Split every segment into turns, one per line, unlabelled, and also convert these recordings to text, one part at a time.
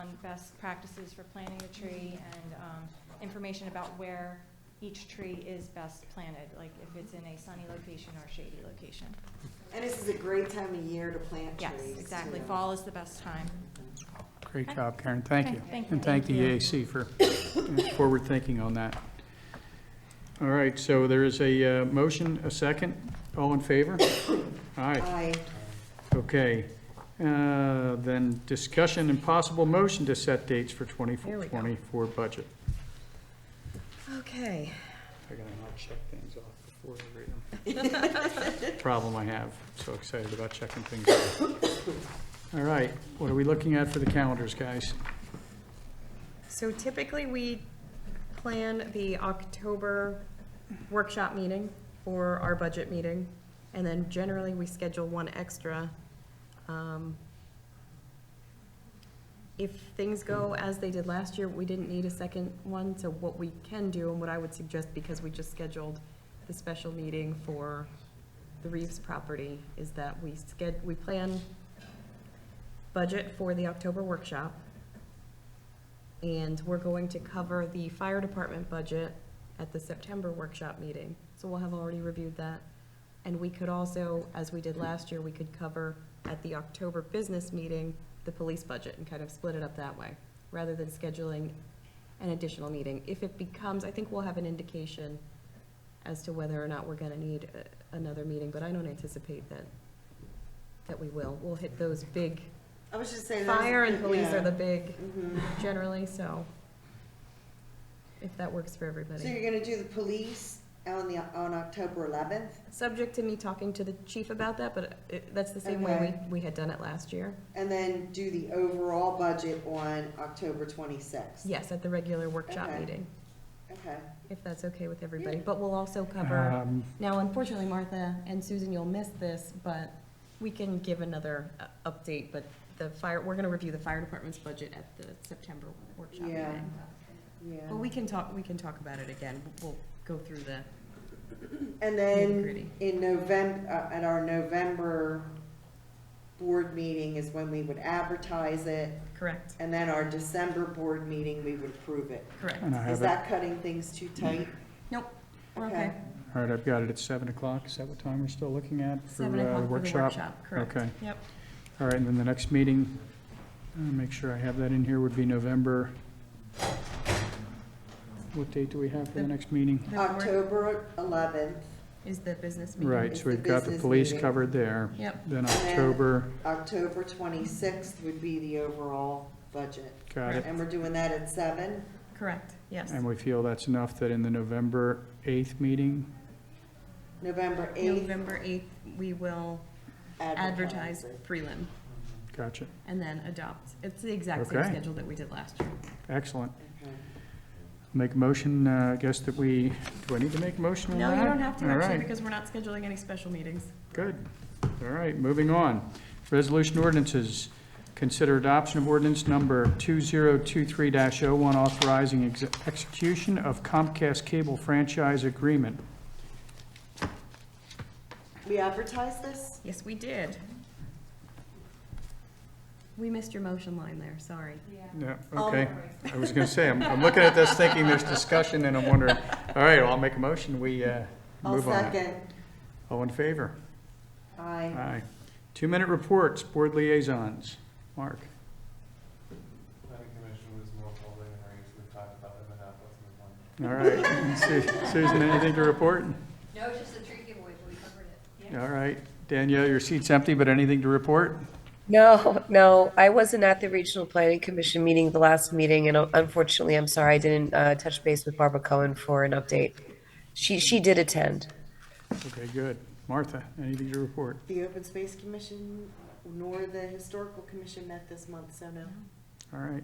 on best practices for planting a tree and um, information about where each tree is best planted, like if it's in a sunny location or shady location.
And this is a great time of year to plant trees.
Yes, exactly.
too.
Fall is the best time.
Great job, Karen, thank
Okay,
you.
thank you.
And thank the EAC for forward thinking on that. All right, so there is a uh, motion, a second, all in favor? Aye,
Aye.
okay. Uh, Then discussion and possible motion to set dates for
There we
24
go.
24 budget.
Okay.
I gotta not check things off before I read them. Problem I have, so excited about checking things off. All right, what are we looking at for the calendars, guys?
So typically, we plan the October workshop meeting for our budget meeting, and then generally, we schedule one extra. Um, If things go as they did last year, we didn't need a second one, so what we can do, and what I would suggest, because we just scheduled the special meeting for the Reeves property, is that we sched, we plan budget for the October workshop, and we're going to cover the fire department budget at the September workshop meeting. So we'll have already reviewed that. And we could also, as we did last year, we could cover at the October business meeting, the police budget and kind of split it up that way, rather than scheduling an additional meeting. If it becomes, I think we'll have an indication as to whether or not we're gonna need uh, another meeting, but I don't anticipate that, that we will. We'll hit those big,
I was just saying.
fire and police are the
yeah.
big
Mhm.
generally, so if that works for
So
everybody.
you're gonna do the police on the, on October eleventh?
Subject to me talking to the chief about that, but it- that's the same way
Okay.
we, we had done it last year.
And then do the overall budget on October twenty-sixth?
Yes, at the regular workshop
Okay.
meeting,
Okay.
if that's okay with everybody. But we'll also cover,
Um,
now unfortunately, Martha and Susan, you'll miss this, but we can give another uh, update, but the fire, we're gonna review the fire department's budget at the September workshop
Yeah.
meeting. But
Yeah.
we can talk, we can talk about it again. We'll go through the
And
nitty
then
gritty.
in November, at our November board meeting is when we would advertise it.
Correct,
And then our December board meeting, we would approve it.
correct.
And I
Is
have it, all
that cutting things too tight?
Nope, we're okay.
right, I've got it at 7 o'clock, is that what time we're still looking at? for,
Seven
uh,
o'clock for the workshop, correct.
Okay,
Yep,
all right, and then the next meeting, uh, make sure I have that in here, would be November, what date do we have for the
The-
next meeting?
the board
October eleventh,
is the business meeting.
Right,
It's
so
the
we've got the
business
police
meeting.
covered there,
Yep,
then
then-
October,
October twenty-sixth would be the overall budget.
got it.
And we're doing that at seven?
correct, yes.
And we feel that's enough that in the November 8th meeting,
November eighth.
November 8th, we will advertise prelim
gotcha,
and then adopt. It's the exact same
Okay.
schedule that we did last year.
excellent.
Okay.
Make a motion, uh, I guess that we, do I need to make a motion on that?
No, you don't have to
All
actually,
right.
because we're not scheduling any special meetings.
Good. All right, moving on. Resolution ordinances. Consider adoption of ordinance number 2023-01 authorizing ex- execution of Comcast Cable Franchise Agreement.
We advertise this?
Yes, we did. We missed your motion line there, sorry.
Yeah,
Oh.
okay. I was going to say, I'm I'm looking at this thinking there's discussion and I'm wondering, all right, well, I'll make a motion, we uh,
I'll
move on that.
second.
All in favor?
Aye.
Aye. Two-minute reports, board liaisons. Mark,
Planning commission was more holding and range, we've talked about it enough, let's move on.
all right. Su- Susan, anything to report?
No, it's just a tree giveaway, but we covered it.
All right. Danielle, your seat's empty, but anything to report?
No, no, I wasn't at the Regional Planning Commission meeting, the last meeting, and uh, unfortunately, I'm sorry, I didn't uh, touch base with Barbara Cohen for an update. She, she did attend.
Okay, good. Martha, anything to report?
The Open Space Commission nor the Historical Commission met this month, so no.
All right.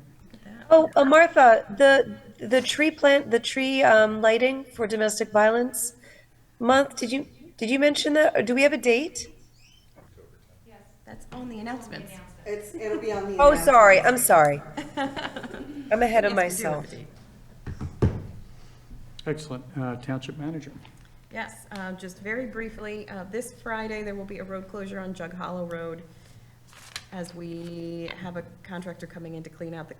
Oh, uh, Martha, the, the tree plant, the tree um, lighting for domestic violence month, did you, did you mention that? Or do we have a date?
That's on the announcements.
It's, it'll be on the.
Oh,
announcement.
sorry, I'm sorry. I'm ahead of
Yes, we do have a
myself.
date.
Excellent. Uh, Township manager.
Yes, uh, just very briefly, uh, this Friday, there will be a road closure on Jug Hollow Road as we have a contractor coming in to clean out the